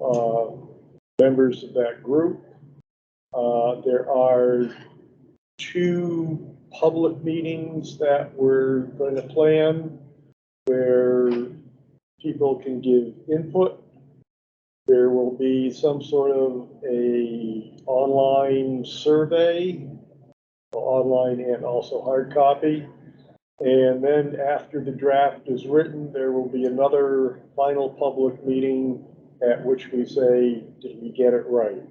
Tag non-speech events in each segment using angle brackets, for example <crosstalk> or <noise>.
uh, members of that group. Uh, There are two public meetings that we're going to plan where people can give input. There will be some sort of a online survey, online and also hard copy. And then after the draft is written, there will be another final public meeting at which we say, did we get it right?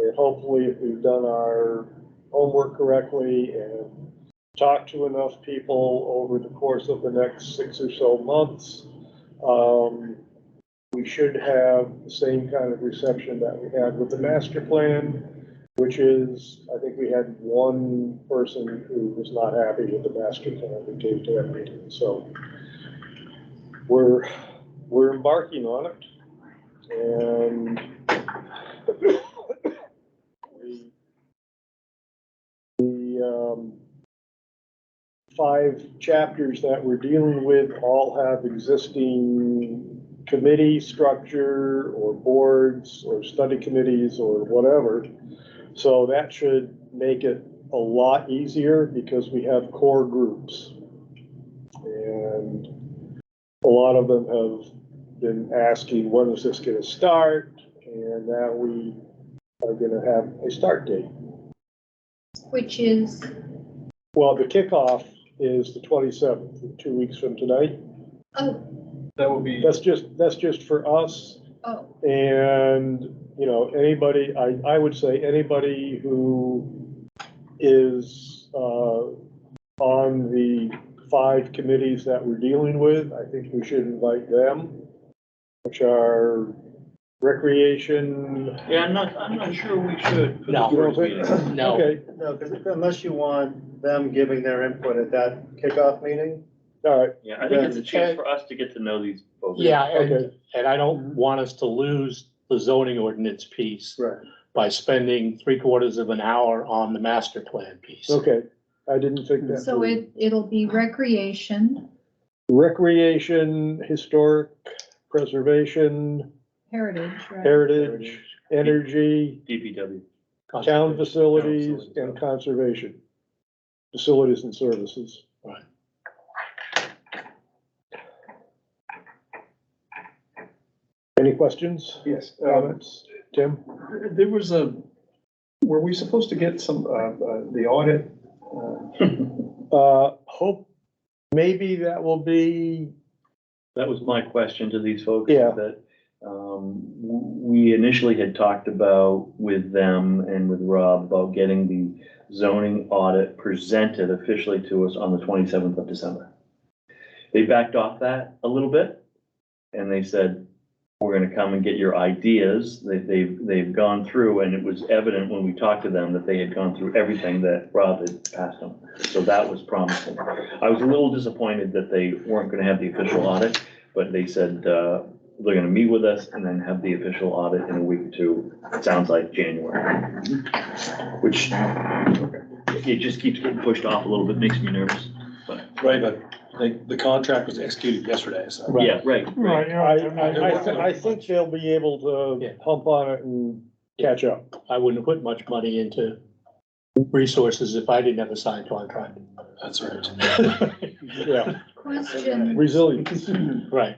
And hopefully, if we've done our homework correctly and talked to enough people over the course of the next six or so months, um, we should have the same kind of reception that we had with the master plan, which is, I think we had one person who was not happy with the master plan we gave to that meeting, so we're, we're embarking on it, and the, the, um, five chapters that we're dealing with all have existing committee structure or boards or study committees or whatever. So that should make it a lot easier because we have core groups. And a lot of them have been asking, when is this gonna start? And now we are gonna have a start date. Which is, Well, the kickoff is the twenty-seventh, two weeks from tonight. oh, That would be, That's just, that's just for us. oh, And, you know, anybody, I, I would say anybody who is, uh, on the five committees that we're dealing with, I think we should invite them, which are recreation. yeah, I'm not, I'm not sure we should. for the No. first meeting. No. Okay, No, because unless you want them giving their input at that kickoff meeting, all right, Yeah, I think it's a chance for us to get to know these folks. Yeah, and, Okay. and I don't want us to lose the zoning ordinance piece right, by spending three quarters of an hour on the master plan piece. okay. I didn't think that. so through. it, it'll be recreation, Recreation, historic preservation, heritage, right? heritage, energy. <laughs> DPW. Town Conservation. facilities and conservation. Facilities and services. Right. Any questions, Yes. um, comments? Tim? There was a, were we supposed to get some, uh, uh, the audit? uh, Uh, hope, maybe that will be, That was my question to these folks. Yeah. That, um, w- we initially had talked about with them and with Rob about getting the zoning audit presented officially to us on the twenty-seventh of December. They backed off that a little bit, and they said, we're gonna come and get your ideas. They, they've, they've gone through, and it was evident when we talked to them that they had gone through everything that Rob had passed them. So that was promising. I was a little disappointed that they weren't gonna have the official audit, but they said, uh, they're gonna meet with us and then have the official audit in a week or two, it sounds like January. Which, it just keeps getting pushed off a little bit, makes me nervous. Right, but the, the contract was executed yesterday, so. Right. Yeah, right, right. I, I, I, thi- I think they'll be able Yeah. to pump on it and catch <laughs> up. I wouldn't put much money into resources if I didn't have a signed contract. That's right. Yeah, Question, resilience. Right,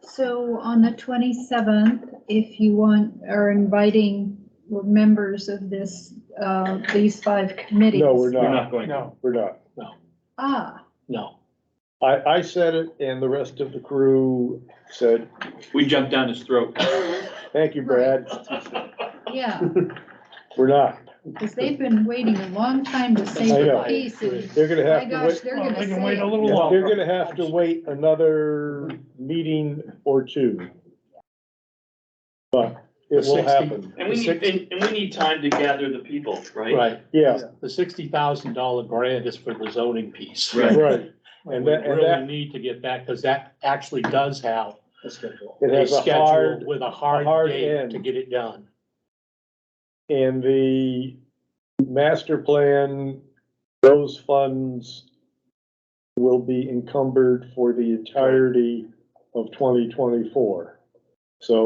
so on the twenty-seventh, if you want, are inviting members of this, uh, these five committees. No, we're We're not, not going, to. we're not. Ah, no. I, I said it and the rest of the crew said, We jumped down his throat. thank you, Brad, yeah, we're not. because they've been waiting a long time to say I the know. piece. and They're gonna My have to wait. gosh, they're gonna say, it. Yeah, They're gonna have to wait another meeting or two. But it The will 60 happen, and we need, and, and we need time to gather the people, right? Right, <laughs> yeah, the sixty thousand dollar grant is for the zoning piece. Right. right. And And we that, and really that, need to get that, because that actually does have it a has a schedule hard, with a a hard hard date end. to get it done. and the master plan, those funds will be encumbered for the entirety of twenty twenty-four. So